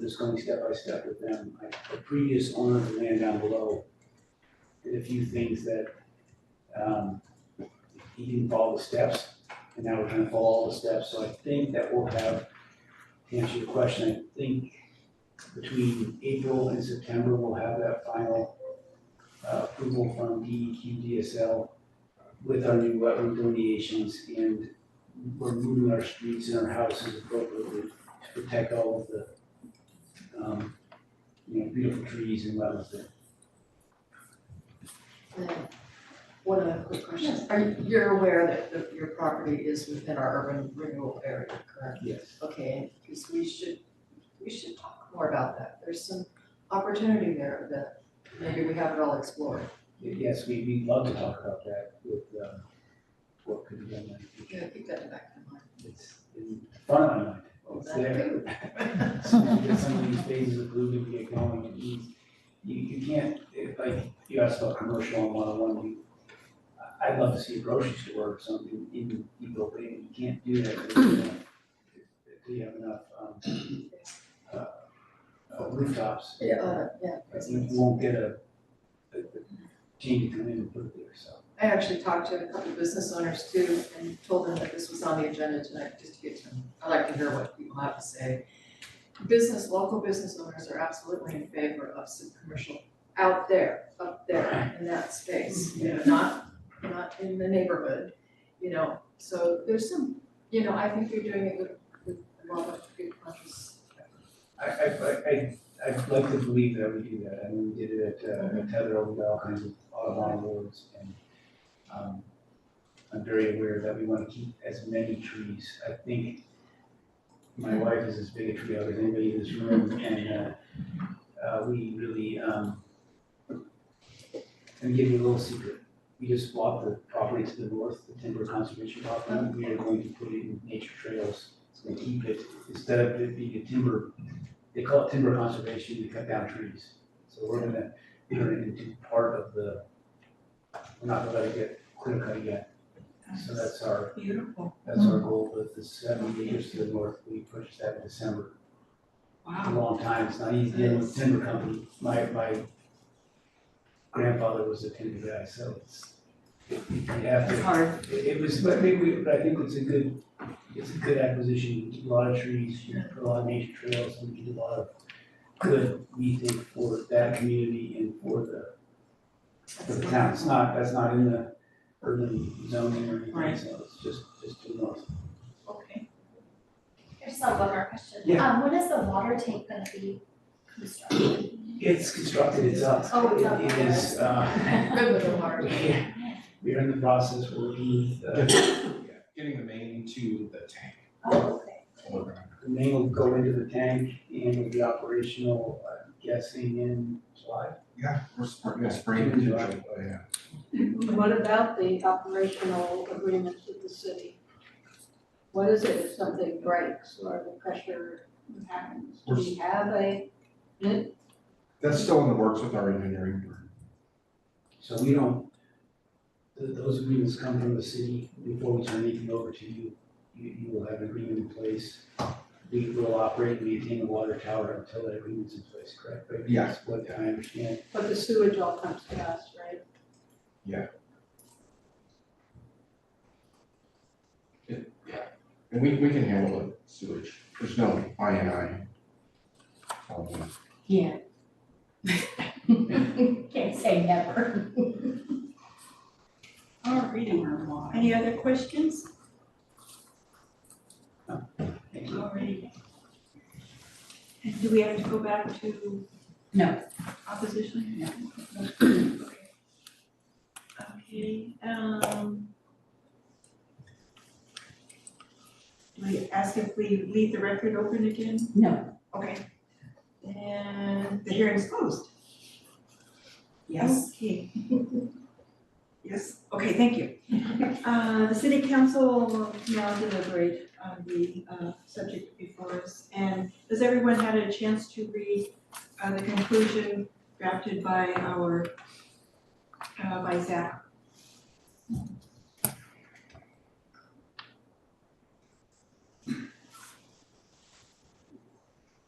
this going step by step with them. I- The previous owner of the land down below did a few things that, um, he didn't follow the steps, and now we're gonna follow all the steps, so I think that we'll have, to answer your question, I think between April and September, we'll have that final uh, approval from E DEQ DSL with our new wetland delineations, and we're moving our streets and our houses appropriately to protect all of the, um, you know, beautiful trees and wetlands there. One other quick question, are, you- you're aware that, that your property is within our urban renewal area, correct? Yes. Okay, because we should, we should talk more about that, there's some opportunity there that maybe we haven't all explored. Yes, we, we'd love to talk about that with, um, what could be done in the future. Yeah, keep that in the back of your mind. It's in front of my mind, Oh, it's there. So we get some of these phases approved and get going and you, you, you can't, if, like, you asked about commercial and one-on-one, you, I- I'd love to see a grocery store or something in Eagle Bay, and you can't do that. if you don't- if you have enough, um, uh, uh, rooftops, Uh, yeah, I think you won't get a, a, a team to come in and put it there, so. I actually talked to a couple of business owners too, and told them that this was on the agenda tonight, just to get to, I like to hear what people have to say. Business, local business owners are absolutely in favor of some commercial out there, up there in that space, you know, not, not in the neighborhood, you know, so there's some, you know, I think you're doing it with, with a lot of good conscious. I, I, I, I- I'd like to believe that we do that, I mean, we did it at, uh, at Tether, we got all kinds of Audubon awards, and, um, I'm very aware that we wanna keep as many trees, I think my wife is as big a tree hugger as anybody in this room, and, uh, uh, we really, um, let me give you a little secret, we just bought the property to the north, the timber conservation property, we are going to put it in nature trails, so we keep it, instead of it being a timber they call it timber conservation, we cut down trees. So we're gonna turn it into part of the, we're not gonna let it get clear cut yet. So that's our, Beautiful, that's our goal with the seven acres to the north, we pushed that in December. A wow. long time, it's not easy dealing with timber company, my, my grandfather was a timber guy, so it's, it- you have to It's hard. it it was, I think we, I think it's a good, it's a good acquisition, You keep a lot of trees, you put a lot of nature trails, and we did a lot of good, we think, for that community and for the, for the town, it's not, that's not in the urban zoning or anything, Right. so it's just, just to the north. Okay. I just have one more question. Yeah. Um, when is the water tank gonna be constructed? It's constructed, it's up. Oh, it's up. It it is, uh, Good with the heart. yeah, we're in the process, uh, we're looking, at the, Yeah, Getting the main to the tank. Oh, okay. the main will go into the tank and will be operational, I'm guessing in July. Yeah, we're spring, spring potential, yeah. What about the operational agreements with the city? What is it if something breaks or the pressure happens? Do we have a, That's still in the works with our engineering firm. So we don't, th- those agreements come from the city before we turn anything over to you. You, you will have an agreement in place. We will operate and maintain the water tower until that agreement's in place, correct? But Yeah. that's What I understand, but the sewage all comes to us, right? And we, we can handle the sewage. There's no I and I. Um, Yeah. Can't say never. Our reading room wide. Any other questions? thank you. Alrighty. And do we have to go back to No, opposition? No. Okay, um. Do we ask if we leave the record open again? no, Okay. And the hearing's closed. Yes. Okay. Yes, okay, thank you. Uh, the city council will now deliberate on the, uh, subject before us. And has everyone had a chance to read, uh, the conclusion drafted by our, uh, by Zach?